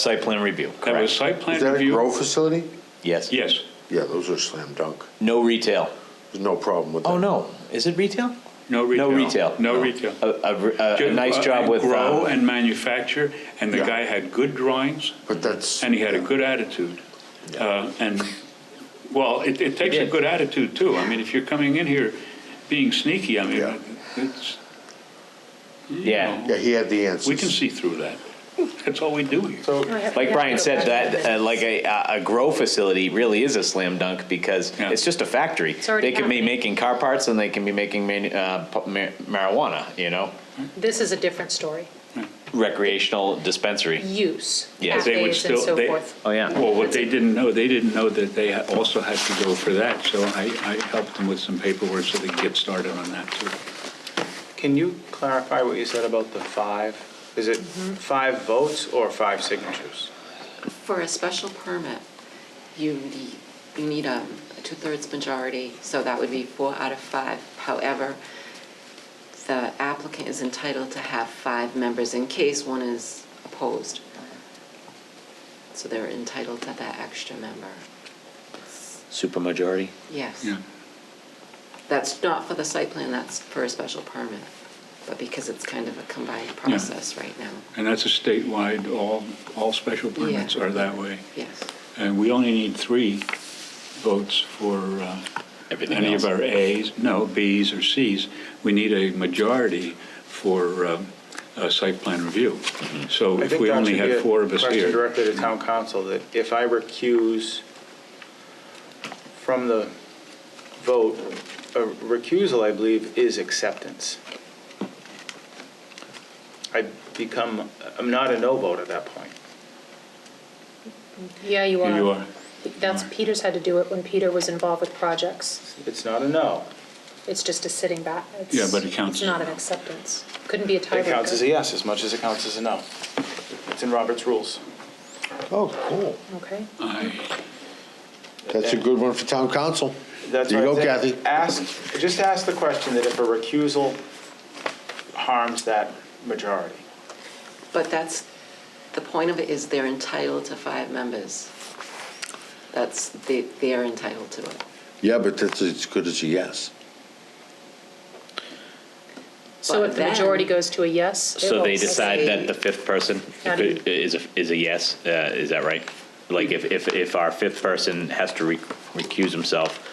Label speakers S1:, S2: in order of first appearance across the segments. S1: Site plan review,
S2: That
S1: correct?
S2: was site plan
S3: Is that a
S2: review?
S3: grow facility?
S1: Yes.
S2: Yes.
S3: Yeah, those are slam dunk.
S1: No retail.
S3: There's no problem with that.
S1: Oh, no, is it retail?
S2: No retail.
S1: No retail.
S2: No retail.
S1: A, a- a nice
S2: Uh,
S1: job with,
S2: Grow
S1: um,
S2: and manufacture, and the
S3: Yeah.
S2: guy had good drawings,
S3: But that's.
S2: and he had a good attitude. Uh, And, well, it, it takes a
S1: did.
S2: good attitude, too. I mean, if you're coming in here being sneaky, I
S3: Yeah.
S2: mean, it's, you
S1: Yeah.
S2: know,
S3: Yeah, he had the answers.
S2: we can see through that. That's all we do here.
S1: like Brian said, that, uh, like a, a grow facility really is a slam dunk because
S2: Yeah.
S1: it's just a factory. They
S4: already
S1: can be
S4: happening.
S1: making car parts and they can be making manu- uh, pu- mar- marijuana, you know?
S4: This is a different story.
S1: Recreational dispensary.
S4: Use,
S1: Yes.
S2: They would
S4: cafes and
S2: still-
S4: so
S2: they-
S4: forth.
S1: Oh, yeah.
S2: Well, what they didn't know, they didn't know that they ha- also had to go for that, so I, I helped them with some paperwork so they could get started on that, too.
S5: Can you clarify what you said about the five? Is it five votes or five signatures?
S6: For a special permit, you need, you need um, a two-thirds majority, so that would be four out of five. However, the applicant is entitled to have five members in case one is opposed. So they're entitled to that extra member.
S1: Supermajority.
S6: Yes.
S2: Yeah.
S6: That's not for the site plan, that's for a special permit. But because it's kind of a combined process right now,
S2: And that's a statewide, all, all special permits
S6: Yeah.
S2: are that way.
S6: yes.
S2: And we only need three votes for uh,
S1: Everything
S2: any of
S1: else.
S2: our As, no, Bs or Cs. We need a majority for um, a site plan review.
S1: Mm-hmm.
S2: So
S5: I
S2: if
S5: think
S2: we
S5: that
S2: only
S5: should be
S2: had
S5: a
S2: four of us
S5: Question
S2: here.
S5: directly to town council, that if I recuse from the vote, a recusal, I believe, is acceptance. I become, I'm not a no vote at that point.
S4: Yeah, you
S2: Here
S4: are.
S2: you are.
S4: That's, Peter's had to do it when Peter was involved with projects.
S5: It's not a no.
S4: It's just a sitting back. It's-
S2: Yeah, but it counts.
S4: It's not an acceptance. Couldn't be a
S5: It counts as a
S4: tiebreaker.
S5: yes as much as it counts as a no. It's in Robert's rules.
S3: Oh, cool.
S4: Okay.
S2: I-
S3: That's a good one for town council.
S5: That's
S3: There you
S5: what
S3: go,
S5: I think.
S3: Kathy.
S5: Ask, just ask the question that if a recusal harms that majority.
S6: But that's, the point of it is they're entitled to five members. That's, they, they are entitled to it.
S3: Yeah, but that's as good as a yes.
S4: So if the
S6: But
S4: majority
S6: then-
S4: goes to a yes, it
S1: So they
S4: votes.
S1: decide that the fifth person
S4: Not even-
S1: is, a- is a yes, uh, is that right? Like if, if, if our fifth person has to re- recuse himself,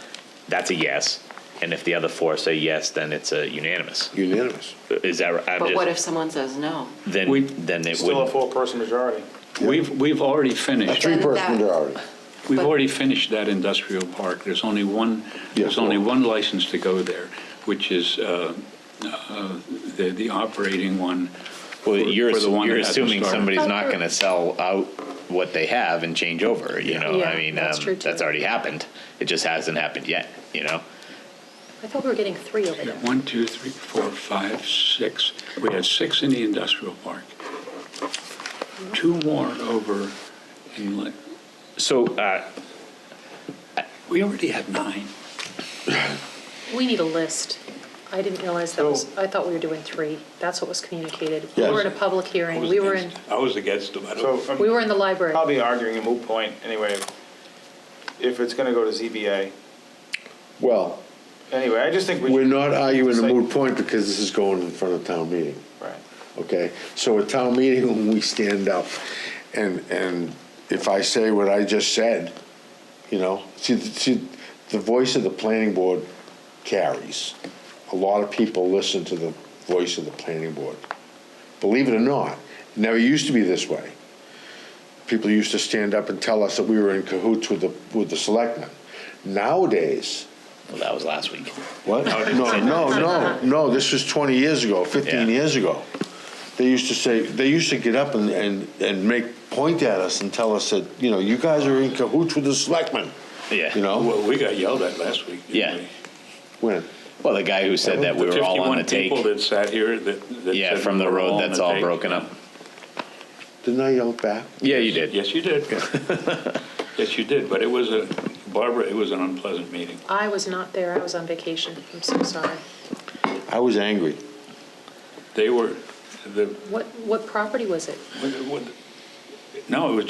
S1: that's a yes. And if the other four say yes, then it's a unanimous.
S3: Unanimous.
S1: Is that, right? I'm
S6: But what if
S1: just,
S6: someone says no?
S2: We-
S1: then, then it
S5: Still a
S1: would,
S5: four-person majority.
S2: We've, we've already finished.
S3: Three person
S6: that-
S3: majority.
S2: We've
S6: But-
S2: already finished that industrial park. There's only one, there's
S3: Yeah.
S2: only one license to go there, which is uh, uh, the the operating one.
S1: well,
S2: for-
S1: you're,
S2: for the one
S1: you're
S2: that hasn't
S1: assuming
S2: started.
S1: somebody's not gonna sell out what they have and change over, you know?
S4: Yeah,
S1: I mean,
S4: that's
S1: um,
S4: true, too.
S1: that's already happened. It just hasn't happened yet, you know?
S4: I thought we were getting three over there.
S2: One, two, three, four, five, six. We had six in the industrial park. Two more over in, Lin-
S1: So, uh,
S2: we already had nine.
S4: We need a list. I didn't realize that was,
S5: So-
S4: I thought we were doing three. That's what was communicated. We
S3: Yes.
S4: were in a public
S2: I
S4: hearing.
S2: was
S4: We were in,
S2: against- I was against them. I don't-
S5: So
S4: we
S5: I'm
S4: were in the library.
S5: probably arguing a moot point anyway. If it's going to go to ZBA.
S3: Well,
S5: Anyway, I just think we.
S3: we're
S5: should-
S3: not arguing a
S5: Say-
S3: moot point because this is going in front of town meeting,
S5: Right.
S3: okay? So at town meeting, when we stand up and, and if I say what I just said, you know, see, see, the voice of the planning board carries. A lot of people listen to the voice of the planning board. Believe it or not, it never used to be this way. People used to stand up and tell us that we were in cahoots with the, with the selectmen. Nowadays,
S1: well, that was last week.
S3: what? No, no, no, no, this was 20 years ago, 15
S1: Yeah.
S3: years ago. They used to say, they used to get up and, and, and make, point at us and tell us that, you know, you guys are in cahoots with the selectmen,
S1: Yeah.
S3: you know?
S2: Well, we got yelled at last week. didn't
S1: Yeah.
S2: we?
S3: When?
S1: Well, the guy who said that we were all on the
S2: 51 people
S1: take,
S2: that sat here that. that
S1: yeah,
S2: said
S1: from the
S2: we were
S1: road
S2: on
S1: that's
S2: the
S1: all
S2: take.
S1: broken up.
S3: Didn't I yell back?
S1: Yeah, you did.
S2: Yes, you did. Yes, you did, but it was a, Barbara, it was an unpleasant meeting.
S4: I was not there. I was on vacation. I'm so sorry.
S3: I was angry.
S2: They were, the,
S4: What, what property was it?
S2: what- what- No, it was